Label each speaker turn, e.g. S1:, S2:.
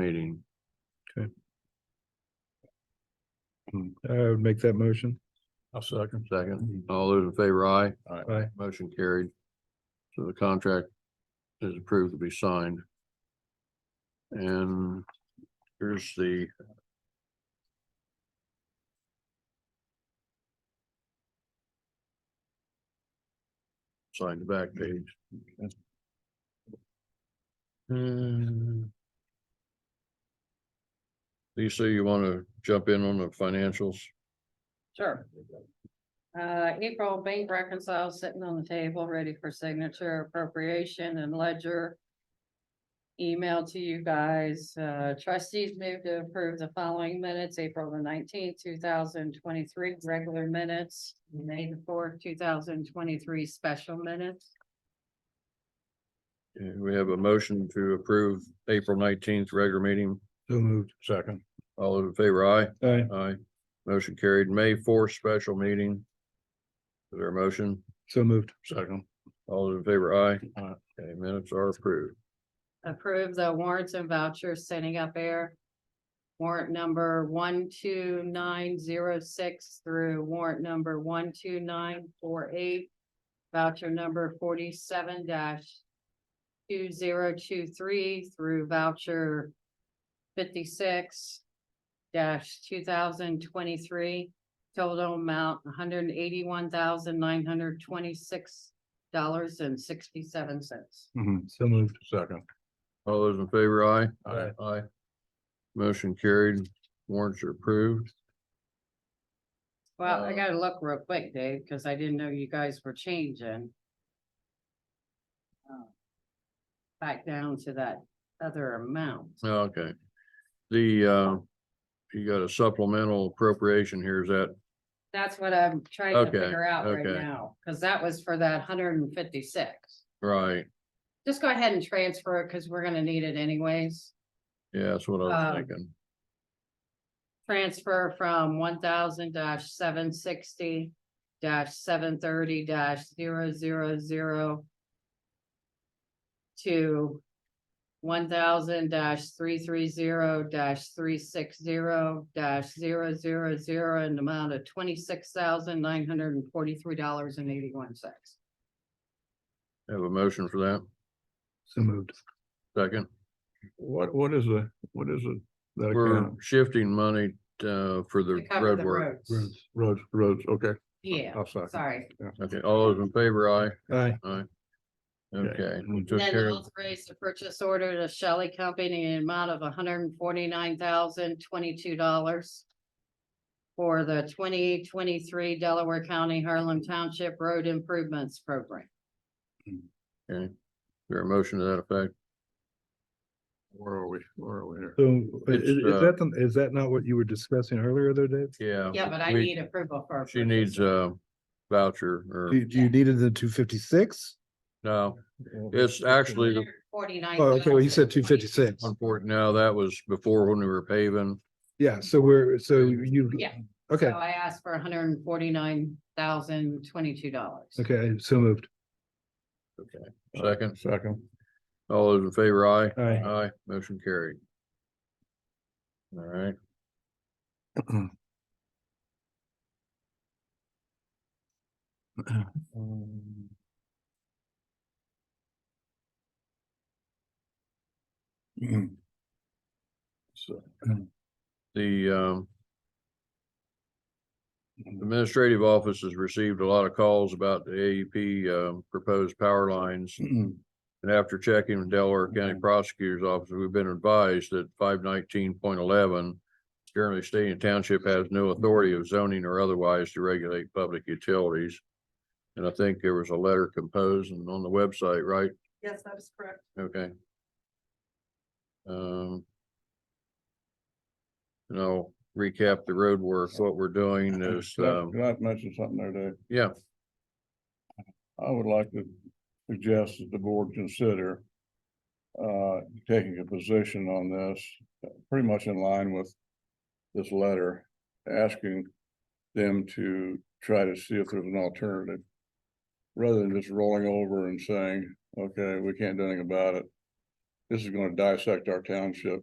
S1: meeting.
S2: I would make that motion.
S3: I'll second.
S1: Hmm. Second, all those in favor, aye.
S2: Aye.
S1: Motion carried. So the contract is approved to be signed. And here's the sign the back page.
S3: Uh,
S1: Hmm. Lisa, you want to jump in on the financials?
S4: Sure. Uh, April bank reconcile sitting on the table, ready for signature appropriation and ledger. Email to you guys, uh, trustees move to approve the following minutes, April the nineteenth, two thousand twenty-three, regular minutes. May the fourth, two thousand twenty-three, special minutes.
S1: Yeah, Uh, We have a motion to approve April nineteenth regular meeting.
S2: So moved.
S3: Second.
S1: All those in favor, aye?
S2: Aye.
S1: Aye. Motion carried. May fourth special meeting. Is there a motion?
S2: So moved.
S3: Second.
S1: All those in favor, aye?
S3: Aye.
S1: Okay, minutes are approved.
S4: approve the warrants and vouchers sending up air. Warrant number one, two, nine, zero, six through warrant number one, two, nine, four, eight. Voucher number forty-seven two, zero, two, three through voucher fifty-six two thousand twenty-three. Total amount one hundred eighty-one thousand nine hundred twenty-six dollars and sixty-seven cents.
S2: So moved.
S3: Mm-hmm. Second.
S1: All those in favor, aye?
S3: Aye.
S1: Aye. Motion carried. Warrants are approved.
S4: Well,
S1: Uh,
S4: I gotta look real quick, Dave, because I didn't know you guys were changing.
S1: Oh.
S4: Uh, Back down to that other amount.
S1: Okay. The, uh, you got a supplemental appropriation here. Is that,
S4: That's what I'm trying to
S1: Okay,
S4: figure out right
S1: okay.
S4: now, because that was for that hundred and fifty-six.
S1: right?
S4: Just go ahead and transfer it, because we're gonna need it anyways.
S1: Yeah, that's what I was
S4: Um,
S1: thinking.
S4: Transfer from one thousand seven sixty seven thirty 0 to one thousand three three zero three six zero 0 in the amount of twenty-six thousand nine hundred and forty-three dollars and eighty-one cents.
S1: Have a motion for that.
S2: So moved.
S1: Second.
S3: What, what is the, what is it? That
S1: We're
S3: account?
S1: shifting money, uh, for
S4: To
S1: the
S4: cover
S1: road
S4: the
S1: work.
S4: roads.
S3: Roads, roads, okay.
S4: Yeah,
S3: I'll second.
S4: sorry.
S1: Okay, all those in favor, aye?
S2: Aye.
S1: Okay, we took
S4: Then
S1: care of,
S4: authorize the purchase order to Shelley Company in an amount of hundred and forty-nine thousand twenty-two dollars for the twenty twenty-three Delaware County Harlem Township Road Improvements Program.
S1: okay, there a motion to that effect?
S3: Where are we? Where are we here?
S2: So i- i-
S1: It's,
S2: is
S1: uh,
S2: that, the- is that not what you were discussing earlier though, Dave?
S1: Yeah.
S4: Yeah, but I
S1: Uh, we-
S4: need approval for. a
S1: She needs
S4: purchase order.
S1: a voucher or,
S2: You, you needed the two fifty-six?
S1: no, it's actually the
S4: $149,000.
S2: Oh, okay, well, you said two fifty-six.
S1: important now, that was before when we were paving.
S2: Yeah, so we're, so you,
S4: Yeah. So
S2: okay,
S4: I asked for hundred and forty-nine thousand twenty-two dollars.
S2: okay, so moved.
S1: Second,
S3: Second.
S1: all those in favor, aye?
S2: Aye.
S1: Aye, motion carried. All right.
S3: Um, So,
S1: The um. Administrative office has received a lot of calls about the AEP um proposed power lines. And after checking with Delaware County Prosecutor's Office, we've been advised that five nineteen point eleven. Generally, state and township has no authority of zoning or otherwise to regulate public utilities. And I think there was a letter composed and on the website, right?
S4: Yes, that is correct.
S1: Okay. Um. And I'll recap the road work, what we're doing is, um,
S3: Can I mention something there, Dave?
S1: yeah,
S3: I would like to suggest that the board consider uh, taking a position on this, pretty much in line with this letter, asking them to try to see if there's an alternative. Rather than just rolling over and saying, okay, we can't do anything about it. This is gonna dissect our township